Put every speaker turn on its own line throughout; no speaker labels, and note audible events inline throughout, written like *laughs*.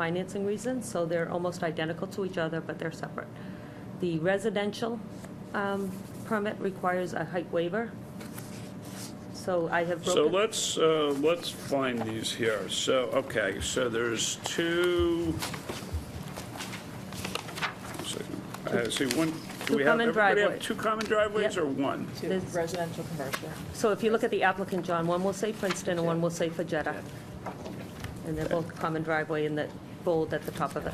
financing reasons, so they're almost identical to each other, but they're separate. The residential um, permit requires a height waiver, so I have
So
broken...
let's, uh, let's find these here. So, okay, so there's two. so, I see one, do
Two
we have,
common
everybody have
driveways.
two common driveways
Yep.
or one?
to
There's-
residential commercial.
So if you look at the applicant, John, one will say Princeton and one will say Fajetta. And they're both common driveway in the bold at the top of it.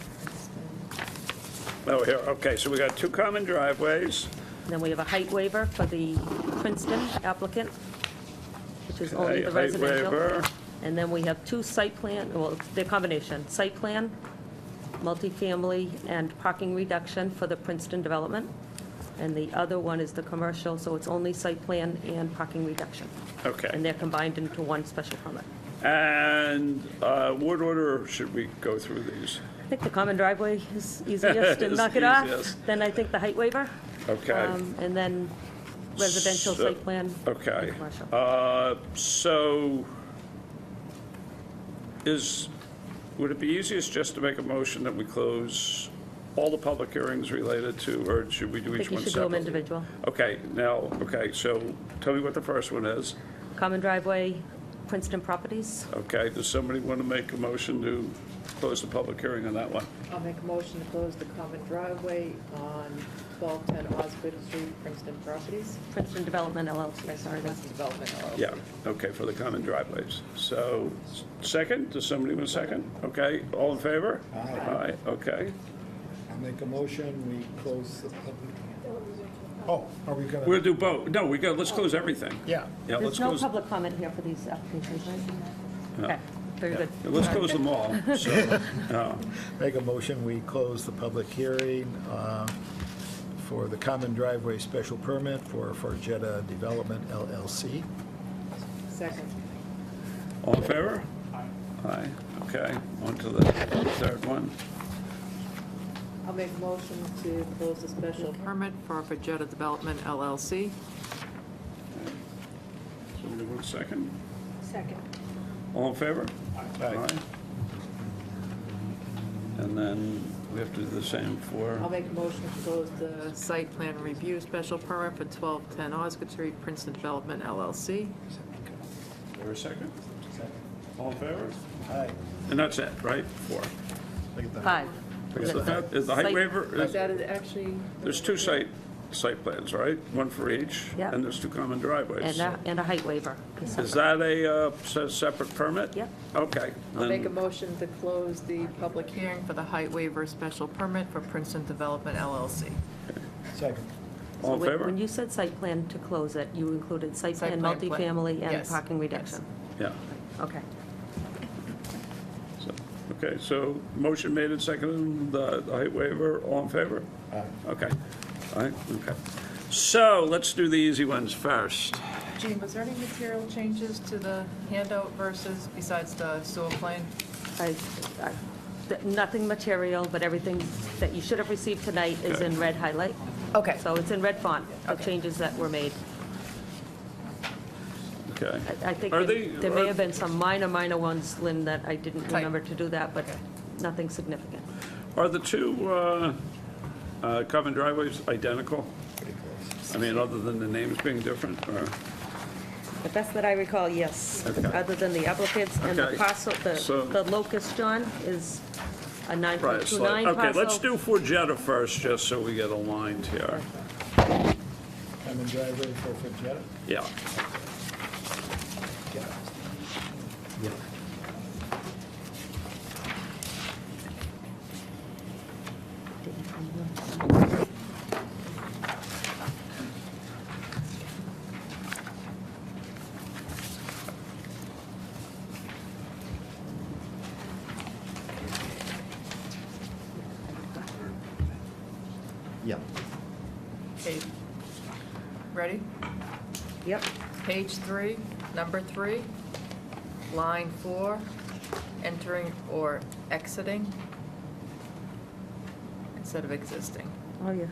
Oh, here, okay, so we got two common driveways.
And Then we have a height waiver for the Princeton applicant, which is only the
a height
residential.
waiver.
And then we have two site plan, well, they're combination, site plan, multifamily, and parking reduction for the Princeton development. And the other one is the commercial, so it's only site plan and parking reduction. And
Okay.
they're combined into one special permit.
And uh, what order should we go through these?
I think the common driveway
*laughs*
is easiest to
Is
knock it off.
easiest.
Then I think the height waiver.
Okay.
um, And then residential
So-
site plan. and
Okay.
commercial.
Uh, So is, would it be easiest just to make a motion that we close all the public hearings related to, or should we do
I think
each
you
one
should do them
separately?
individual.
Okay, now, okay, so tell me what the first one is.
Common driveway, Princeton Properties.
Okay, does somebody want to make a motion to close the public hearing on that one?
I'll make a motion to close the common driveway on 1210 Osgood Street, Princeton Properties.
Princeton Development LLC, sorry.
Princeton Business Development LLC.
Yeah, okay, for the common driveways. So, second, does somebody want a second? Okay, all in favor? Aye. Aye, okay.
I make a motion, we close the public. Oh, are we gonna?
We'll do both. No, we got, let's close everything.
Yeah.
Yeah, let's
There's no
close,
public comment here for these applications, right? Okay, very good.
yeah, let's close them all.
*laughs*
So, no.
Make a motion, we close the public hearing uh, for the common driveway special permit for Fargetta Development LLC.
Second.
All in favor? Aye, okay, on to the third one.
I'll make a motion to close the special permit for Fajetta Development LLC.
Somebody want a second?
Second.
All in favor? Aye. And then we have to do the same
I'll
for,
make a motion to close the site plan review special permit for 1210 Osgood Street, Princeton Development LLC.
for a second? All in favor?
Aye.
And that's it, right? Four.
Look at that.
Five.
Is the- is the height
Site-
waiver,
Is
is-
that actually?
there's two site, site plans, right? One for each?
Yeah.
And there's two common driveways.
And uh, a, and a height waiver.
Is that a uh, se- separate permit?
Yep.
Okay.
I'll make a
then-
motion to close the public hearing for the height waiver special permit for Princeton Development LLC.
Second.
All in
When- When
favor?
you said site plan to close it, you included site
Site
plan,
plan, plan.
multifamily, and
Yes,
parking
yes.
reduction.
Yeah.
Okay.
So- Okay, so motion made and seconded, the the height waiver, all in favor?
Aye.
Okay, all right, okay. So let's do the easy ones first.
Gene, was there any material changes to the handout versus, besides the sewer plan?
I, I- th- nothing material, but everything that you should have received tonight is in red highlight.
Okay.
So it's in red font, the
Okay.
changes that were made.
Okay.
I I think
Are
there-
they-
there may
are-
have been some minor, minor ones, Lynn, that I didn't
Type.
remember to do that, but
Okay.
nothing significant.
Are the two uh, uh, common driveways identical? I mean, other than the names being different, or,
The best that I recall, yes,
Okay.
other than the applicants and the
Okay.
parcel,
So-
the the locus, John, is a
right,
9.29
so,
parcel.
okay, let's do Forgetta first, just so we get aligned here.
Common driveway for Fargetta?
Yeah,
Yeah. Yeah.
Okay. Ready?
Yep,
Page three, number three, line four, entering or exiting instead of existing.
oh, yeah.